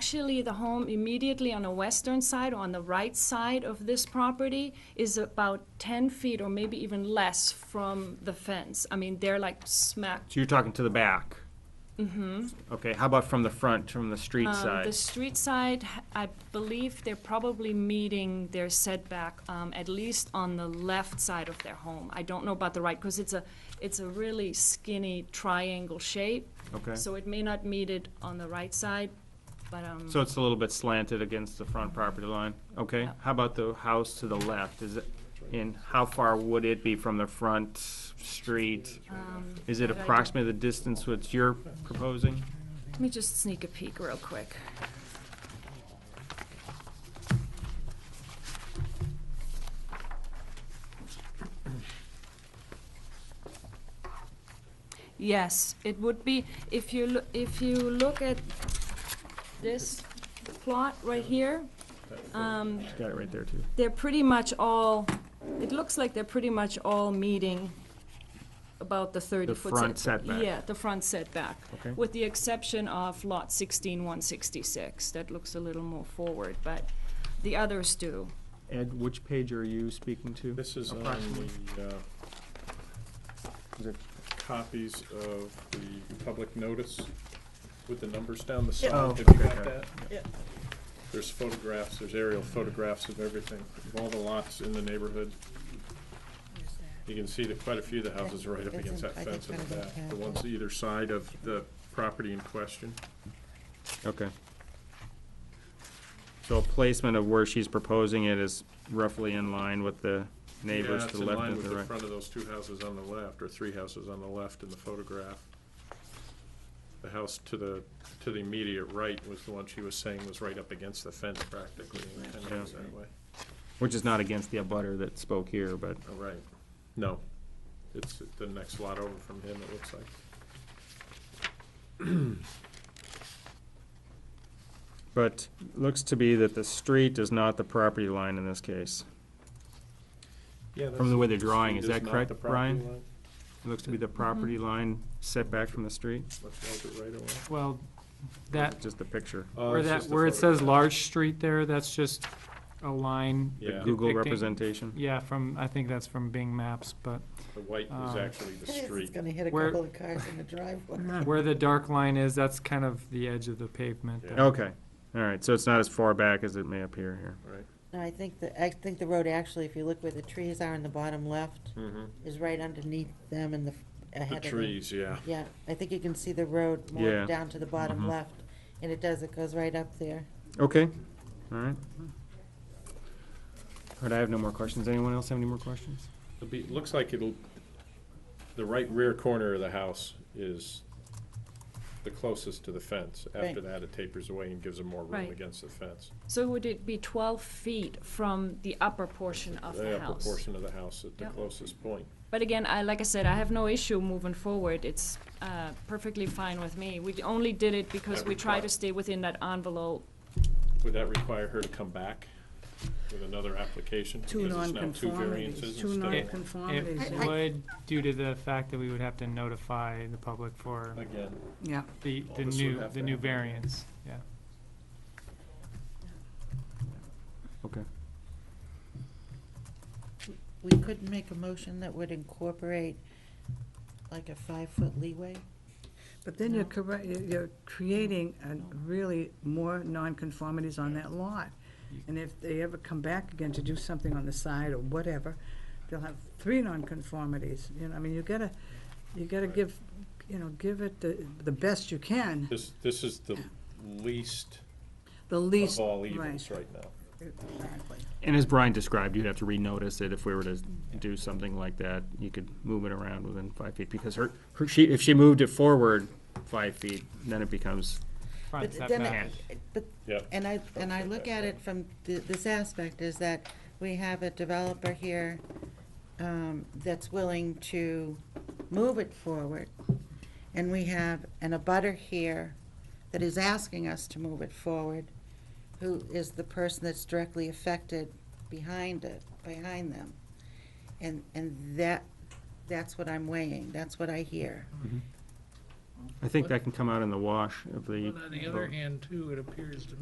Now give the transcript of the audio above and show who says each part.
Speaker 1: Actually, the home immediately on the western side, on the right side of this property, is about 10 feet or maybe even less from the fence. I mean, they're like smack.
Speaker 2: So you're talking to the back? Mm-hmm. Okay, how about from the front, from the street
Speaker 1: Um, The
Speaker 2: side?
Speaker 1: street side, I believe they're probably meeting their setback, um, at least on the left side of their home. I don't know about the right, because it's a, it's a really skinny triangle shape.
Speaker 2: Okay.
Speaker 1: So it may not meet it on the right side, but, um.
Speaker 2: So it's a little bit slanted against the front property line, okay?
Speaker 1: Yeah.
Speaker 2: How about the house to the left, is it, and how far would it be from the front street?
Speaker 1: um,
Speaker 2: Is it
Speaker 1: that I don't-
Speaker 2: approximately the distance which you're proposing?
Speaker 1: Let me just sneak a peek real quick. Yes, it would be, if you, loo- if you look at this plot right here, um,
Speaker 2: Got it right there, too.
Speaker 1: they're pretty much all, it looks like they're pretty much all meeting about the 30-foot setback.
Speaker 2: front setback.
Speaker 1: Yeah, the front setback.
Speaker 2: Okay.
Speaker 1: With the exception of lot 16166. That looks a little more forward, but the others do.
Speaker 2: Ed, which page are you speaking to?
Speaker 3: This is on
Speaker 2: Approximately.
Speaker 3: the uh,
Speaker 2: Is it-
Speaker 3: copies of the public notice with the numbers down the
Speaker 2: Oh,
Speaker 3: side. Have you
Speaker 2: okay.
Speaker 3: got that? There's photographs, there's aerial photographs of everything, of all the lots in the neighborhood. You can see that quite a few of the houses are right up
Speaker 4: It's
Speaker 3: against
Speaker 4: in-
Speaker 3: that
Speaker 4: I think
Speaker 3: fence in the
Speaker 4: kind
Speaker 3: back,
Speaker 4: of
Speaker 3: the
Speaker 4: a
Speaker 3: ones either side of the property in question.
Speaker 2: Okay. So a placement of where she's proposing it is roughly in line with the neighbors
Speaker 3: Yeah,
Speaker 2: to the left and to
Speaker 3: It's in line with
Speaker 2: the
Speaker 3: the
Speaker 2: right?
Speaker 3: front of those two houses on the left, or three houses on the left in the photograph. The house to the, to the immediate right was the one she was saying was right up against the fence practically, and it was that way.
Speaker 2: Which is not against the abutter that spoke here, but,
Speaker 3: Oh, right. No, it's the next lot over from him, it looks like.
Speaker 2: but looks to be that the street is not the property line in this case.
Speaker 3: Yeah,
Speaker 2: From the way they're drawing,
Speaker 3: street
Speaker 2: is that
Speaker 3: not
Speaker 2: correct,
Speaker 3: the property
Speaker 2: Brian?
Speaker 3: line.
Speaker 2: It Looks to be the
Speaker 5: Mm-hmm.
Speaker 2: property line setback from the street,
Speaker 3: Let's mark it right away.
Speaker 5: Well, that,
Speaker 2: just the picture.
Speaker 3: Oh,
Speaker 5: where
Speaker 3: it's
Speaker 5: that,
Speaker 3: just the
Speaker 5: where it says
Speaker 3: photograph.
Speaker 5: large street there, that's just a line.
Speaker 3: Yeah,
Speaker 2: Google
Speaker 5: Depicting-
Speaker 2: representation.
Speaker 5: Yeah, from, I think that's from Bing Maps, but
Speaker 3: the white is
Speaker 2: uh,
Speaker 5: Um,
Speaker 3: actually the
Speaker 4: It's
Speaker 3: street.
Speaker 4: gonna hit a
Speaker 5: Where-
Speaker 4: couple of cars in the driveway.
Speaker 5: where the dark line is, that's kind of the edge of the pavement.
Speaker 3: Yeah.
Speaker 2: Okay, all right, so it's not as far back as it may appear here.
Speaker 3: Right.
Speaker 4: No, I think the, I think the road actually, if you look where the trees are in the bottom left,
Speaker 2: Mm-hmm.
Speaker 4: is right underneath them and the, ahead
Speaker 3: The
Speaker 4: of them.
Speaker 3: trees, yeah.
Speaker 4: Yeah, I think you can see the road
Speaker 2: Yeah.
Speaker 4: more down to the bottom
Speaker 2: Mhm.
Speaker 3: Mm-hmm.
Speaker 4: left, and it does, it goes right up there.
Speaker 2: Okay, all right. All right, I have no more questions. Anyone else have any more questions?
Speaker 3: It'll be, looks like it'll, the right rear corner of the house is the closest to the fence. After
Speaker 4: Right.
Speaker 3: that, it tapers away and gives them more room
Speaker 1: Right.
Speaker 3: against the fence.
Speaker 1: So would it be 12 feet from the upper portion of the
Speaker 3: upper
Speaker 1: house?
Speaker 3: portion of the house at the
Speaker 1: Yep.
Speaker 3: closest point.
Speaker 1: But again, I, like I said, I have no issue moving forward. It's uh, perfectly fine with me. We only did it because
Speaker 3: That
Speaker 1: we try to
Speaker 3: require-
Speaker 1: stay within that envelope.
Speaker 3: Would that require her to come back with another application?
Speaker 6: Two
Speaker 3: Because it's now two variances
Speaker 6: nonconformities, two
Speaker 3: instead of one?
Speaker 6: nonconformities,
Speaker 5: It would, due to the fact that we would have to notify the public for
Speaker 3: Again,
Speaker 6: yeah.
Speaker 5: the,
Speaker 3: Well,
Speaker 5: the
Speaker 3: this would
Speaker 5: new,
Speaker 3: have
Speaker 5: the
Speaker 3: to
Speaker 5: new
Speaker 3: happen.
Speaker 5: variance, yeah.
Speaker 2: Okay.
Speaker 4: We could make a motion that would incorporate like a five-foot leeway.
Speaker 6: But then you're correct, you're- you're creating a really more nonconformities on that lot. And if they ever come back again to do something on the side or whatever, they'll have three nonconformities, you know, I mean, you gotta, you gotta
Speaker 3: Right.
Speaker 6: give, you know, give it the, the best you can,
Speaker 3: this, this is the least
Speaker 6: the least.
Speaker 3: of all
Speaker 6: right,
Speaker 3: evils right now.
Speaker 6: Exactly.
Speaker 2: And as Brian described, you'd have to renotice it if we were to do something like that. You could move it around within five feet, because her, her, she, if she moved it forward five feet, then it becomes,
Speaker 5: Front
Speaker 4: But then
Speaker 5: setback.
Speaker 4: it- But
Speaker 3: Yep.
Speaker 4: And I, and I look at it from th- this aspect, is that we have a developer here um, that's willing to move it forward, and we have an abutter here that is asking us to move it forward, who is the person that's directly affected behind it, behind them. And, and that, that's what I'm weighing, that's what I hear.
Speaker 7: I think that can come out in the wash of the.
Speaker 2: But on the other hand, too, it appears to me